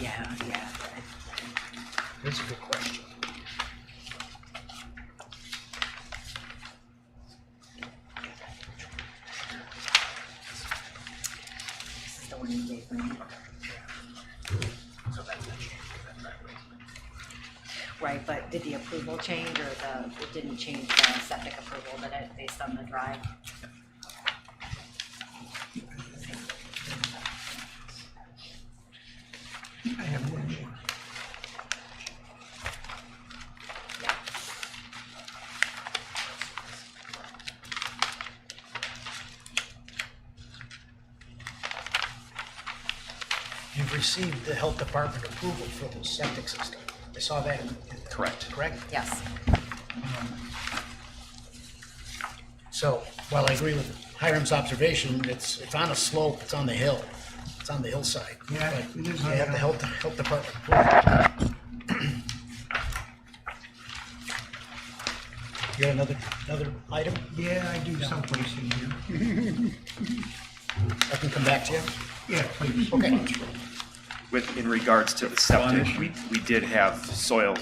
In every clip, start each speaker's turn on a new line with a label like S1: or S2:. S1: Yeah, yeah. That's a good question.
S2: This is the one you gave me.
S1: So that will change that driveway.
S2: Right, but did the approval change or the, it didn't change the septic approval, did it, based on the drive?
S1: I have one more. You've received the health department approval for the septic system. I saw that. in- in-
S3: Correct.
S1: Correct?
S2: Yes.
S1: So while I agree with Hiram's observation, it's, it's on a slope, it's on the hill, it's on the hillside.
S4: Yeah,
S1: But
S4: it
S1: You
S4: is on the
S1: have the
S4: hill.
S1: health, health department. approve it. You got another, another item?
S4: Yeah, I do someplace in here.
S1: I can come back to you.
S4: Yeah, please.
S1: Okay.
S3: With, in regards to the septic, we, we did have soil,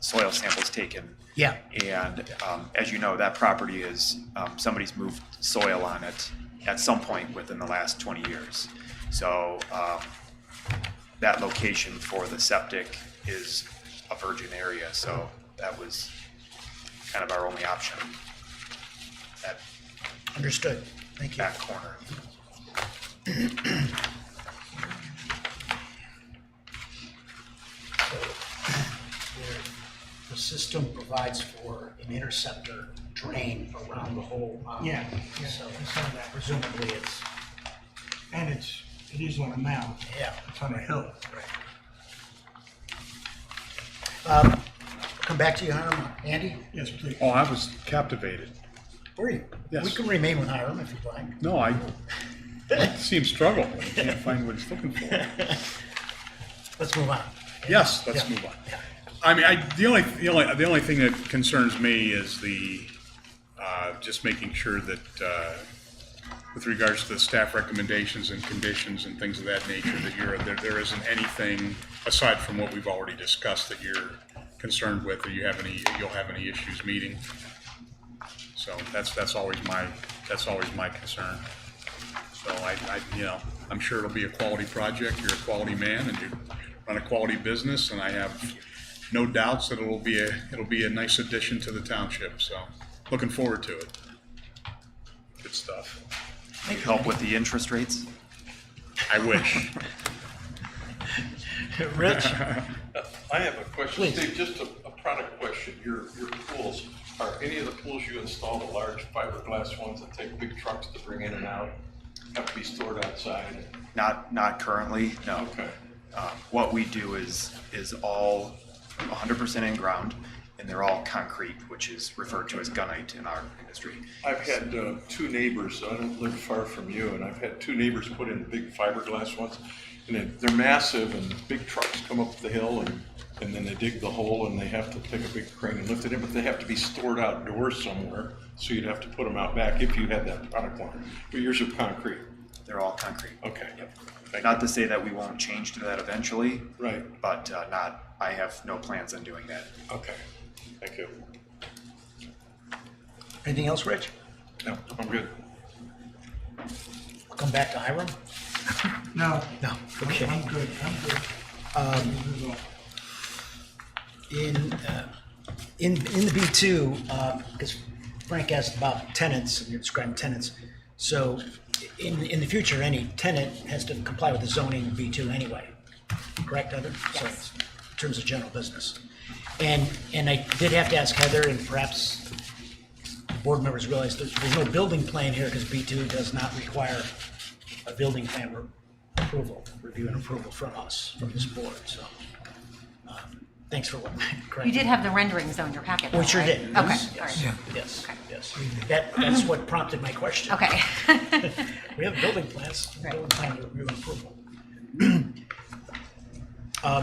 S3: soil samples taken.
S1: Yeah.
S3: And, um, as you know, that property is, um, somebody's moved soil on it at some point within the last twenty years. So, um, that location for the septic is a virgin area, so that was kind of our only option. That
S1: Understood. Thank you.
S3: back corner.
S1: The system provides for an interceptor drain around the whole. mound.
S4: Yeah, yeah,
S1: So
S4: I saw that.
S1: presumably it's,
S4: And it's, it is on a mound.
S1: yeah.
S4: It's on a hill.
S1: Um, Come back to you, Hiram. Andy,
S4: Yes, please.
S5: Oh, I was captivated.
S1: where are you?
S5: Yes.
S1: We can remain with Hiram if you'd like.
S5: No, I see him struggle. I can't find what he's looking for.
S1: Let's move on.
S5: Yes, let's
S1: Yeah.
S5: move on. I mean, I, the only, the only, the only thing that concerns me is the, uh, just making sure that, uh, with regards to the staff recommendations and conditions and things of that nature, that you're, there, there isn't anything aside from what we've already discussed that you're concerned with, or you have any, you'll have any issues meeting. So that's, that's always my, that's always my concern. So I, I, you know, I'm sure it'll be a quality project, you're a quality man, and you run a quality business, and I have no doubts that it'll be a, it'll be a nice addition to the township, so looking forward to it. Good stuff.
S3: Help with the interest rates?
S5: I wish.
S1: Rich?
S6: I have a question,
S1: Please.
S6: Steve, just a, a product question, your, your pools, are any of the pools you install the large fiberglass ones that take big trucks to bring in and out? Have to be stored outside?
S3: Not, not currently, no.
S6: Okay.
S3: Um, What we do is, is all 100% in-ground, and they're all concrete, which is referred to as gunite in our industry.
S6: I've had, uh, two neighbors, I don't live far from you, and I've had two neighbors put in big fiberglass ones. And they're, they're massive and big trucks come up the hill and, and then they dig the hole and they have to take a big crane and lift it in, but they have to be stored outdoors somewhere. So you'd have to put them out back if you had that product line, but yours are concrete.
S3: They're all concrete.
S6: Okay. Thank
S3: Not to say that we won't change to that eventually,
S6: you. Right,
S3: but uh, not, I have no plans on doing that.
S6: okay. Thank you.
S1: Anything else, Rich?
S6: No, I'm good.
S1: We'll come back to Hiram?
S4: No,
S1: No. Okay.
S4: I'm good, I'm good. Um.
S1: In, uh, in, in the B2, because Frank asked about tenants, and you're describing tenants. So in, in the future, any tenant has to comply with the zoning in B2 anyway, correct, Heather? So
S2: Yes.
S1: In terms of general business. And, and I did have to ask Heather, and perhaps board members realize there's, there's no building plan here because B2 does not require a building plan re- approval, review and approval from us, from this board, so. um, Thanks for what,
S2: You
S1: correct?
S2: did have the renderings on your packet though,
S1: We sure
S2: right?
S1: did.
S2: Okay, all
S1: Yes, yes,
S2: right,
S1: Yes,
S2: Okay.
S1: yes. That, that's what prompted my question.
S2: okay.
S1: We have building plans,
S2: Right.
S1: building plan review and approval.